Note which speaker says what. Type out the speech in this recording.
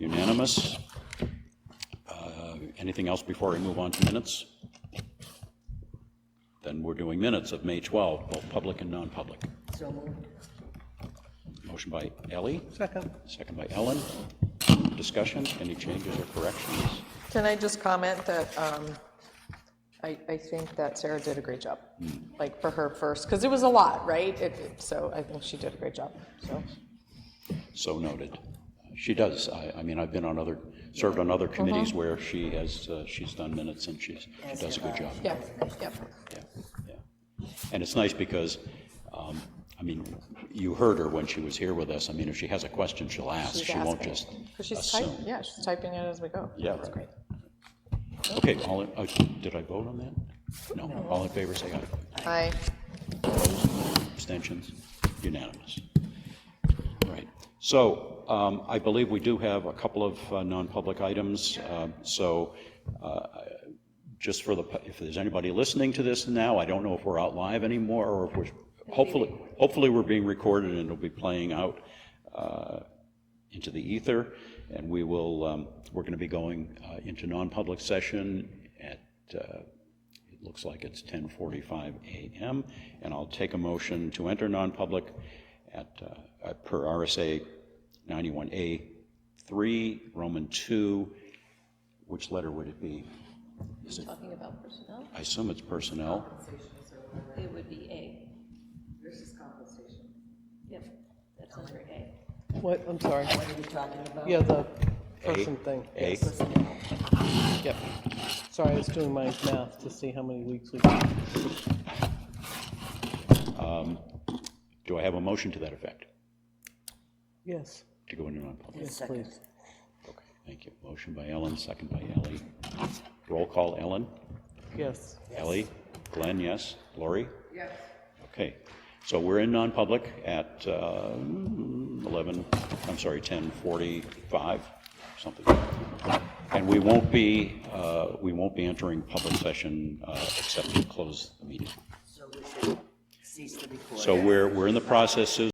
Speaker 1: Unanimous. Uh, Anything else before we move on to minutes? Then we're doing minutes of May 12, both public and non-public.
Speaker 2: So moved.
Speaker 1: Motion by Ellie,
Speaker 3: Second.
Speaker 1: second by Ellen. Discussion, any changes or corrections?
Speaker 4: Can I just comment that um, I, I think that Sarah did a great job,
Speaker 1: Hmm.
Speaker 4: like for her first, because it was a lot, right? It- it- So I think she did a great job, so.
Speaker 1: So noted. She does. I, I mean, I've been on other, served on other
Speaker 2: Uh-huh.
Speaker 1: committees where she has, uh, she's done minutes and she's, she does a good job.
Speaker 4: Yeah, yeah.
Speaker 1: Yeah, yeah. And it's nice because, um, I mean, you heard her when she was here with us. I mean, if she has a question, she'll ask.
Speaker 4: She's
Speaker 1: She won't
Speaker 4: asking.
Speaker 1: just
Speaker 4: 'Cause she's typing,
Speaker 1: assume.
Speaker 4: yeah, she's typing it as we go.
Speaker 1: Yeah,
Speaker 4: That's
Speaker 1: right.
Speaker 4: great.
Speaker 1: Okay, all, in- uh, did I vote on that? No, all in favor, say aye.
Speaker 4: Aye.
Speaker 1: Abstentions? Unanimous. All right. So um, I believe we do have a couple of uh, non-public items. Um, So uh, just for the, if there's anybody listening to this now, I don't know if we're out live anymore, or if we're, hopefully, hopefully we're being recorded and it'll be playing out uh, into the ether, and we will, um, we're going to be going uh, into non-public session at, uh, it looks like it's 10:45 a.m., and I'll take a motion to enter non-public at, uh, uh, per RSA 91A 3, Roman 2, which letter would it be? Is it
Speaker 5: Talking about personnel,
Speaker 1: I assume it's personnel.
Speaker 5: it would be A. Versus compensation. Yep, that's under A.
Speaker 3: What, I'm sorry.
Speaker 2: What are you talking about?
Speaker 3: Yeah, the person thing.
Speaker 1: A,
Speaker 3: Yep. Sorry, I was doing my math to see how many weeks we got.
Speaker 1: do I have a motion to that effect,
Speaker 3: Yes,
Speaker 1: to go into non-public?
Speaker 3: yes, please.
Speaker 1: Okay, thank you. Motion by Ellen, second by Ellie. Roll call, Ellen?
Speaker 3: Yes.
Speaker 1: Ellie? Glenn, yes? Lori? Yes. Okay, so we're in non-public at uh, 11, I'm sorry, 10:45, something. And we won't be, uh, we won't be entering public session uh, except to close the meeting.
Speaker 2: So we should cease the recording.
Speaker 1: So we're, we're in the process, Susan,